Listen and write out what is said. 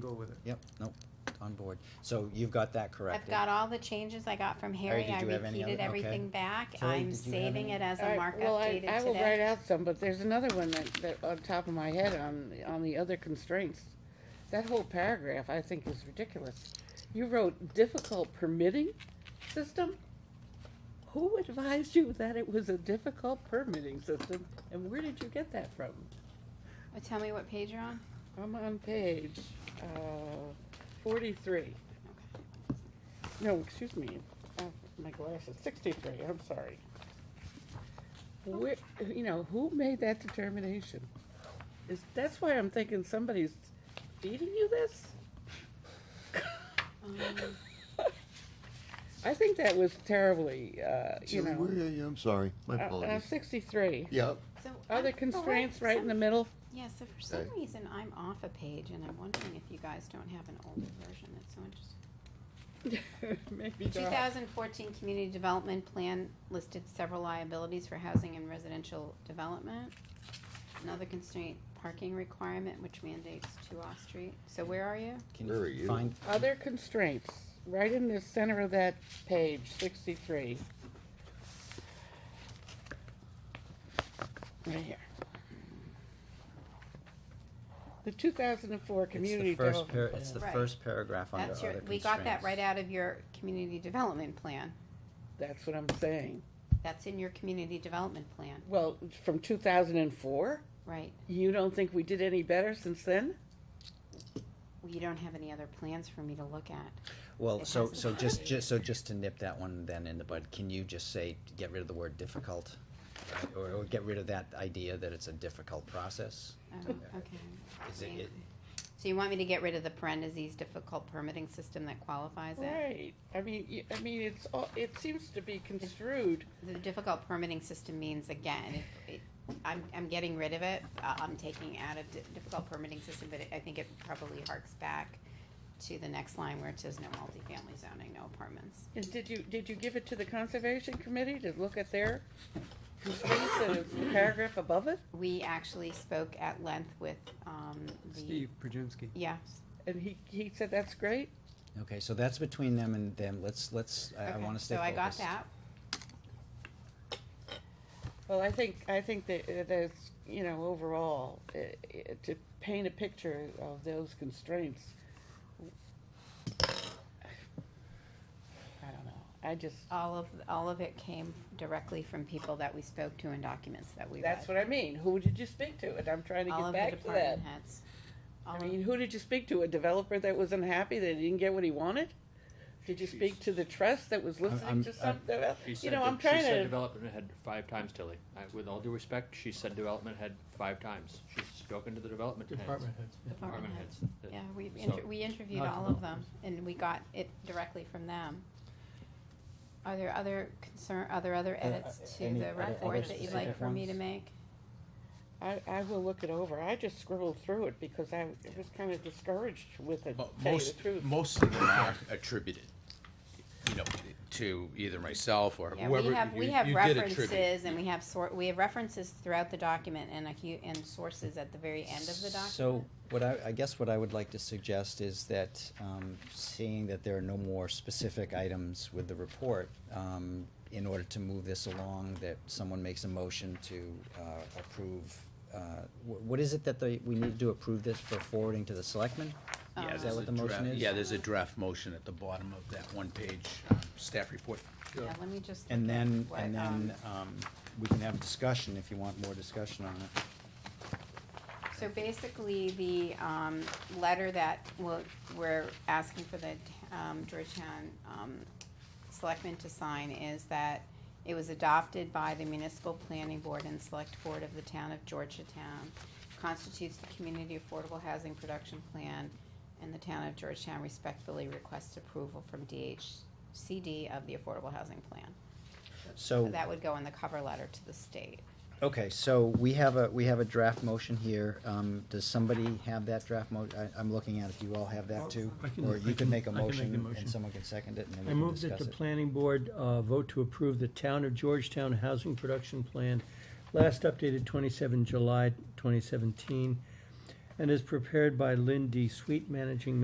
go with it. Yep, nope, on board. So you've got that I've corrected. got all the changes I got from Harry, did I you have any repeated other- okay. everything back, Kelly, I'm did you have saving any? it as All a right, well, markup I- dated I will write today. out some, but there's another one that, that, on top of my head on, on the other constraints. That whole paragraph, I think is ridiculous. You wrote difficult permitting system? Who advised you that it was a difficult permitting system, and where did you get that from? Uh, Tell me what page you're on? I'm on page, uh, forty-three. No, excuse me, uh, my glasses, sixty-three, I'm sorry. Where, you know, who made that determination? Is, that's why I'm thinking somebody's feeding you this? Um, I think that was terribly, uh, you Julie, where know, are you? I'm sorry, my uh, uh, apologies. sixty-three. Yeah, so I'm- oh, Other wait, constraints right in the some- middle? Yeah, so for some Okay. reason, I'm off a page, and I'm wondering if you guys don't have an older version, that's so interesting. Maybe The not. 2014 Community Development Plan listed several liabilities for housing and residential development. Another constraint, parking requirement, which mandates two off-street. So where are you? Can Where are you? Find, Other constraints, right in the center of that page, sixty-three. Right here. The two thousand and four it's community the first, development par- it's the plan. Right. first paragraph under That's other your, constraints. we got that right out of your community development plan. That's what I'm saying. That's in your community development plan, Well, from two thousand and four, right? you don't think we did any better since then? Well, You don't have any other plans for me to look at. Well, It so, hasn't so been just, updated. just, so just to nip that one then in the bud, can you just say, get rid of the word difficult? Right, Or, or get rid of that idea that it's a difficult process? Oh, okay. Is it- it- So you want me to get rid of the parentheses difficult permitting system that qualifies it? Right, I mean, y- I mean, it's all, it seems to be construed, The difficult permitting system means, again, if, it- I'm, I'm getting rid of it, uh, I'm taking out a di- difficult permitting system, but it- I think it probably harks back to the next line where it says no multifamily zoning, no apartments. and did you, did you give it to the conservation committee to look at their constraints, the paragraph above it? We actually spoke at length with, um, the. Steve Prudziński. Yes, And he, he said, that's great. Okay, so that's between them and them, let's, let's, I, I okay, wanna stay so I got focused. that, Well, I think, I think that uh, that's, you know, overall, i- i- to paint a picture of those constraints. I don't know, I just, all of, all of it came directly from people that we spoke to and documents that we read. that's what I mean, who did you speak to? And I'm trying to All get of the back to that. department heads. All I of- mean, who did you speak to? A developer that was unhappy that he didn't get what he wanted? Did you speak to the trust that was I'm- listening to I'm- something? else? She You said, know, de- I'm she said trying to, development head five times, Tilly. I, with all due respect, she said development head five times. She's spoken to the development heads. Department heads. Department heads. The- Yeah, we, So- inter- we interviewed Not all of them, and we got it directly from them. Are there other concern, are there other Uh, edits uh, to any the other- report other that you'd like specific for me to ones? make? I, I will look it over. I just scribbled through it because I was kind of discouraged with it, to Mo- tell you the most, truth. most of them are attributed, you know, to either myself or Yeah, we whoever. have, we you- have you did attribute. references, and we have sor, we have references throughout the document and a hu, and sources at the very end of the document. So, what I, I guess what I would like to suggest is that, um, seeing that there are no more specific items with the report, um, in order to move this along, that someone makes a motion to, uh, approve, uh, wh- what is it that they, we need to approve this for forwarding to the selectmen? Yeah, Yeah, Is that there's what a the motion draft- is? Yeah, there's a draft motion at the bottom of that one-page um, staff report. Yeah, let me just. And look at then, what, and um, then, um, we can have a discussion if you want more discussion on it. So basically, the um, letter that we'll- we're asking for the um, Georgetown um, Selectmen to sign is that it was adopted by the Municipal Planning Board and Select Board of the Town of Georgetown, constitutes the Community Affordable Housing Production Plan, and the Town of Georgetown respectfully requests approval from DHCD of the Affordable Housing Plan. So So, that would go in the cover letter to the state. okay, so we have a, we have a draft motion here. Um, does somebody have that draft mo, I, I'm looking at it. Do you all have that too? I can- Or I you can can- make a I can make the motion motion. and someone can second it and then we I can move that discuss the it. planning board uh, vote to approve the town of Georgetown Housing Production Plan, last updated 27 July 2017, and is prepared by Lynn D. Sweet, Managing